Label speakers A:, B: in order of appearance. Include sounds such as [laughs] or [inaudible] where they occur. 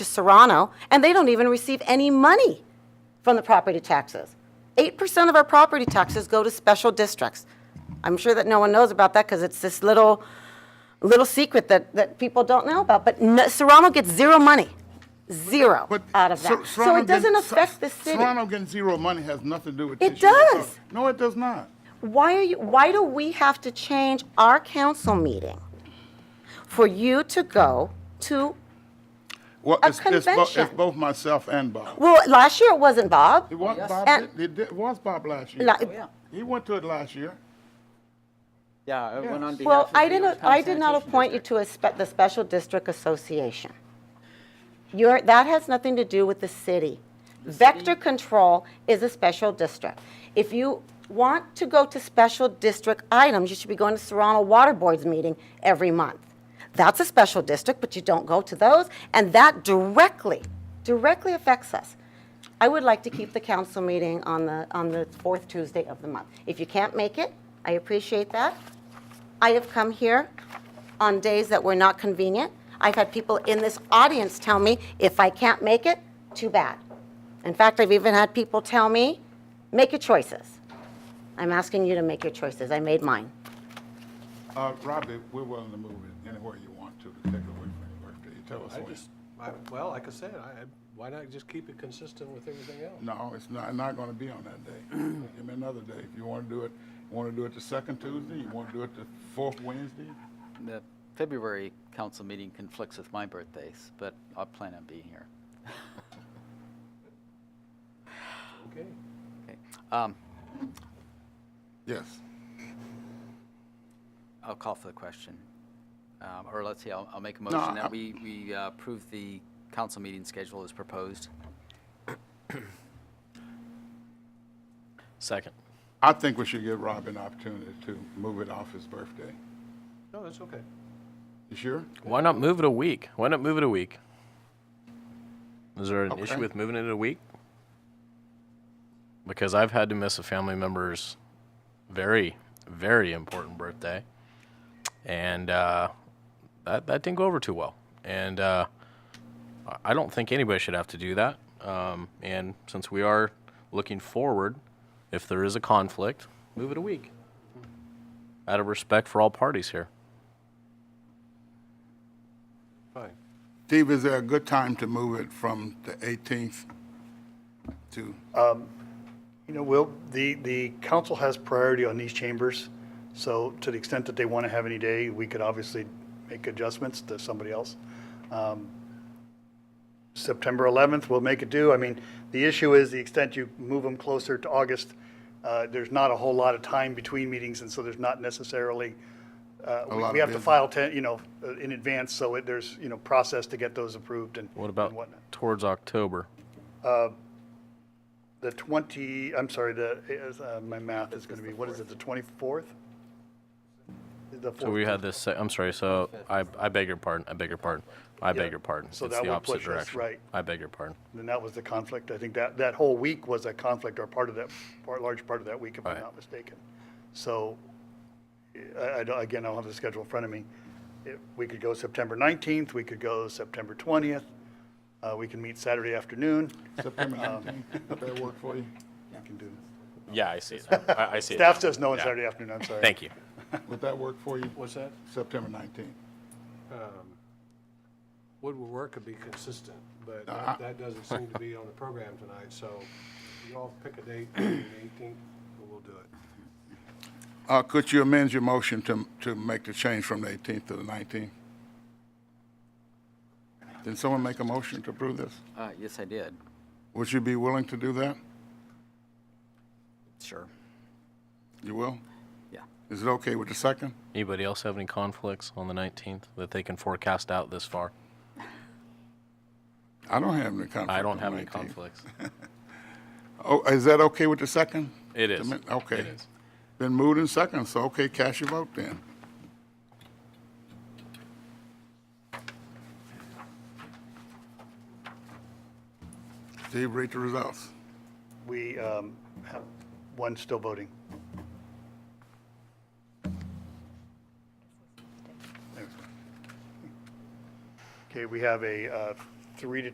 A: to Serrano, and they don't even receive any money from the property taxes. 8% of our property taxes go to special districts. I'm sure that no one knows about that because it's this little, little secret that, that people don't know about. But no- Serrano gets zero money, zero
B: But
A: out of
B: Ser-
A: that. So
B: Serrano
A: it doesn't
B: getting-
A: affect the
B: Ser-
A: city.
B: Serrano getting zero money has nothing to do with
A: It
B: this. year.
A: does.
B: No, it does not.
A: Why are you, why do we have to change our council meeting for you to go to,
B: Well,
A: A
B: it's, it's, bo-
A: convention.
B: it's both myself and Bob.
A: well, last year it wasn't Bob.
B: It was Bob.
A: And-
B: did- It, did- was Bob last year.
A: La- Oh, yeah.
B: He went to it last year.
C: Yeah, it went on behalf
A: Well,
C: of
A: I
C: the
A: didn't,
C: Youngstown
A: I did not
C: Sanitation
A: appoint you to
C: District.
A: a spe, the Special District Association. You're, that has nothing to do with the city. Vector control is a special district. If you want to go to special district items, you should be going to Serrano Water Board's meeting every month. That's a special district, but you don't go to those, and that directly, directly affects us. I would like to keep the council meeting on the, on the fourth Tuesday of the month. If you can't make it, I appreciate that. I have come here on days that were not convenient. I've had people in this audience tell me, if I can't make it, too bad. In fact, I've even had people tell me, make your choices. I'm asking you to make your choices. I made mine.
B: Uh, Robbie, we're willing to move it anywhere you want to, to take away from your birthday. Tell us
D: I
B: when.
D: just, I- well, like I said, I, I- why not just keep it consistent with everything else?
B: No, it's not, not gonna be on that
A: [clears throat]
B: day. Give me another day. If you wanna do it, you wanna do it the second Tuesday, you wanna do it the fourth Wednesday?
C: The February council meeting conflicts with my birthdays, but I plan on being here.
D: Okay.
C: Okay. Um,
B: Yes.
C: I'll call for the question. Um, Or let's see, I'll I'll make a
B: No,
C: motion
B: I-
C: that we we uh, approve the council meeting schedule as proposed.
E: Second.
B: I think we should give Rob an opportunity to move it off his birthday.
D: No, that's okay.
B: You sure?
E: Why not move it a week? Why not move it a week? Is there an issue
B: Okay.
E: with moving it a week? Because I've had to miss a family member's very, very important birthday, and uh, that that didn't go over too well. And uh, I- I don't think anybody should have to do that. Um, and since we are looking forward, if there is a conflict, move it a week. Out of respect for all parties here.
D: Fine.
B: Steve, is there a good time to move it from the 18th to,
F: You know, Will, the, the council has priority on these chambers, so to the extent that they want to have any day, we could obviously make adjustments to somebody else. Um, September 11th, we'll make it do. I mean, the issue is the extent you move them closer to August, uh, there's not a whole lot of time between meetings, and so there's not necessarily, uh, we-
B: lot of
F: we have to
B: business.
F: file, ten- you know, uh, in advance, so it- there's, you know, process to get those approved and
E: What
F: and
E: about
F: whatnot.
E: towards October?
F: The 20, I'm sorry, the, is, uh, my math is going to be, what is it, the 24th? The
E: So we
F: 4th.
E: had this, se- I'm sorry, so I, I beg your pardon, I beg your pardon, I beg your pardon. It's
F: so
E: the
F: that would
E: opposite
F: push us,
E: direction.
F: right.
E: I beg your pardon.
F: And that was the conflict. I think that, that whole week was a conflict or part of that, part, large part of that week, if I'm
E: Right.
F: not mistaken. So I, I don't- again, I don't have the schedule in front of me. It- We could go September 19th, we could go September 20th, uh, we can meet Saturday afternoon.
B: September 19th? Does that work for you?
F: We can do-
E: Yeah, I
F: [laughs]
E: see it. I, I see
F: Staff says no on Saturday afternoon, I'm sorry.
E: Thank you.
B: Would that work for you?
D: What's that?
B: September 19th.
D: Um, Wood will work could be consistent, but
B: Uh-huh.
D: that that doesn't seem to be on the program tonight, so you all pick a date, [clears throat] the 18th, and we'll do it.
B: Uh, could you amend your motion to, to make the change from the 18th to the 19th? Did someone make a motion to approve this?
C: Uh, Yes, I did.
B: Would you be willing to do that?
C: Sure.
B: You will?
C: Yeah.
B: Is it okay with the second?
E: Anybody else have any conflicts on the 19th that they can forecast out this far?
B: I don't have any conflict.
E: I don't
B: on
E: have any
B: 19th.
E: conflicts.
B: Oh, is that okay with the second? [laughs]
E: It is.
B: Amen- Okay.
E: It is.
B: Been moved and second, so okay, cast your vote then. Steve, read the results.
F: We um, have one still voting. Okay, we have a uh, three to